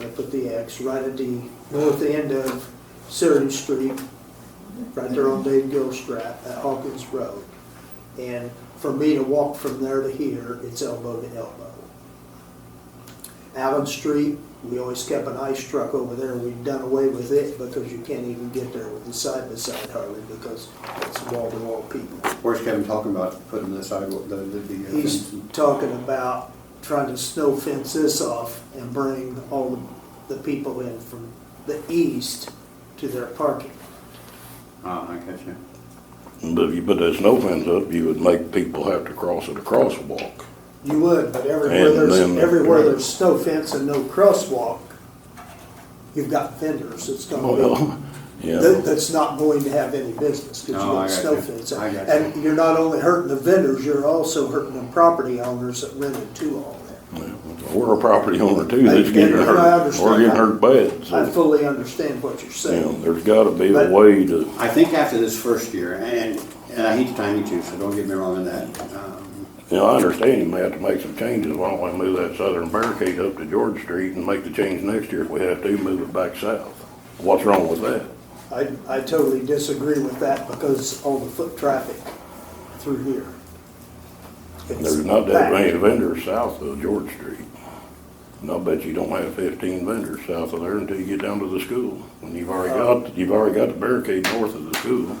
I put the X right at the north end of Sirius Street, right there on Dave Gilstrap at Hawkins Road. And for me to walk from there to here, it's elbow to elbow. Allen Street, we always kept an ice truck over there. We've done away with it because you can't even get there with the side by side hardly because it's wall to wall people. Where's Kevin talking about putting the sidewalk, the, the, the. uh, He's fence? talking about trying to snow fence this off and bring all the people in from the east to their parking. Ah, I catch you. But if you put that snow fence up, you would make people have to cross at a crosswalk. You would, but everywhere And there's, then- everywhere there's snow fence and no crosswalk, you've got vendors, it's gonna Well, be, that- yeah, that's not going to have any business, cause you No, got I got snow you. fence. I got And you're not only hurting the vendors, you're also hurting the property owners that rented to all that. we're a property owner too, I- that's getting and I hurt, understand we're getting that. hurt bad, I so, fully understand what you're you know, saying. there's gotta be But- a way to, I think after this first year, and, and I hate to time you too, so don't get me wrong on that. Um, you know, I understand you may have to make some changes, why don't we move that southern barricade up to George Street and make the change next year if we have to, move it back south? What's wrong with that? I, I totally disagree with that because all the foot traffic through here. It's There's not that packed. many vendors south of George Street. And I'll bet you don't have fifteen vendors south of there until you get down to the school. And you've already got, you've already got the barricade north of the school.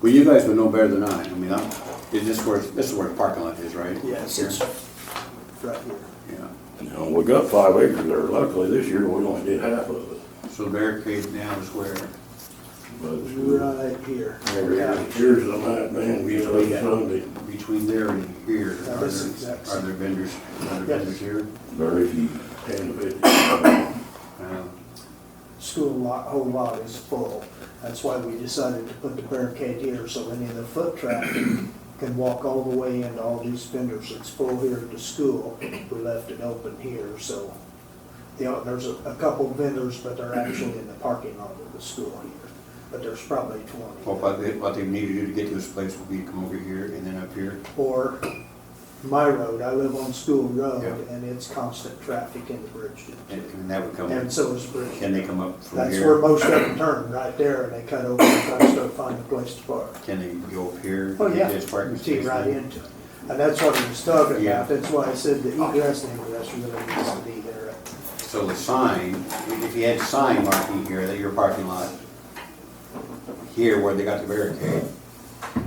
Well, you guys would know better than I. I mean, I'm, is this where, this is where the parking lot is, right? Yes, Here? it's right here. Yeah. You know, we got five acres there. Luckily, this year, we only did half of it. So the barricade now is where, by the school. Right here. Yeah. Here's the night, man, we had a Sunday. between there and here, Now, are this is there, next. are there vendors, are Yes. there vendors here? Very few, ten to fifteen. Uh, School lot, whole lot is full. That's why we decided to put the barricade here so any of the foot traffic can walk all the way into all these vendors. It's full here at the school. We left it open here, so. You know, there's a, a couple vendors, but they're actually in the parking lot of the school here. But there's probably twenty. Well, what they, what they need to do to get to this place would be to come over here and then up here. or my road, I live on School Road, Yeah. and it's constant traffic into Bridgeton. And, and that would come, And can so is Bridgeton. they come up from That's where here? most of them turn, right there, and they cut over and try to start finding a place to park. Can they go up here? Oh, and yeah, This parking you see space? right into it. And that's what he was talking Yeah. about, that's why I said the egress and ingress really needs to be there. So the sign, if you had sign marking here, that your parking lot, here where they got the barricade,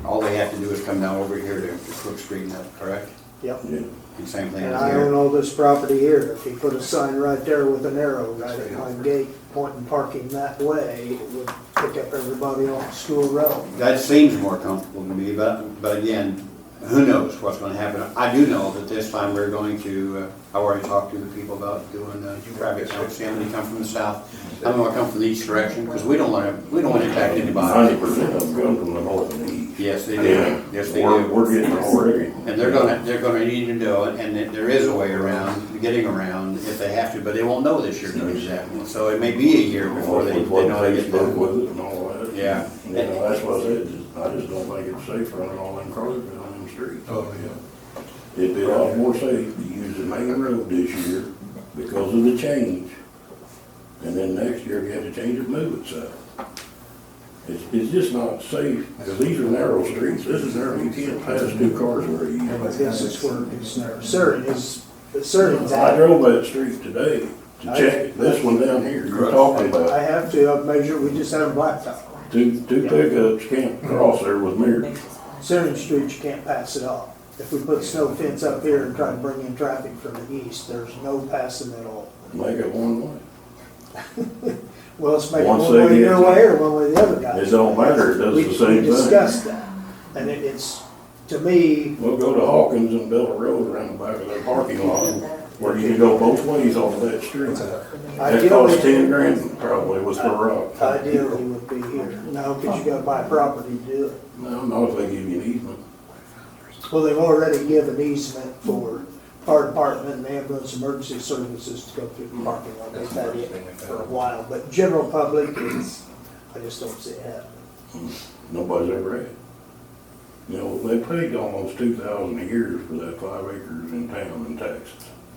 all they have to do is come down over here to to Crook Street and that, correct? Yep. Yeah. And same thing And as I own here. all this property here, if he put a sign right there with an arrow right at my gate pointing parking that way, it would pick up everybody on School Road. That seems more comfortable to me, but, but again, who knows what's gonna happen. I do know that this time we're going to, uh, I already talked to the people about doing uh, traffic counts, see how many come from the south. I'm gonna come from the east direction, because we don't wanna, we don't wanna impact Ninety anybody. percent of them come from the north and east. Yes, they Yeah, do. Yes, they do. We're, we're getting already. And they're gonna, they're gonna need to know, it, and that there is a way around, getting around if they have to, but they won't know this year to do that one. So it may be a year before they, they know they get Facebook that. with it and all that. Yeah. You know, that's what I said, just- I just don't think it's safe running all them cars down them streets. Oh, yeah. It'd be a lot more safe to use the main road this year because of the change. And then next year, if you had to change it, move it south. It's, it's just not safe, because these are narrow streets, this is narrow, you can't pass two cars where you. But This is where it's narrow. Certain is, certain. I drove that street today to check this one down here you're talking about. I have to, I've measured, we just had a blacktop. Two, two pickups can't cross there with mirrors. Certain streets, you can't pass it off. If we put snow fence up here and try to bring in traffic from the east, there's no passing at all. Make it one way. Well, let's make it one Once way they your get- way or one way the other guy. It don't matter, it does We- the same We thing. discussed that. And it- it's, to me, We'll go to Hawkins and build a road around the back of their parking lot where you can go both ways off of that street. That costs ten ideally, grand probably with the rock. ideally would be here. No, because you gotta buy property to do it. No, not if they give you an easement. Well, they've already given easement for fire department and ambulance emergency services to go through the parking lot. They've had it for a while, but general public is, I just don't see it happening. Nobody's ever had. it. You know, they paid almost two thousand a year for that five acres in town in Texas.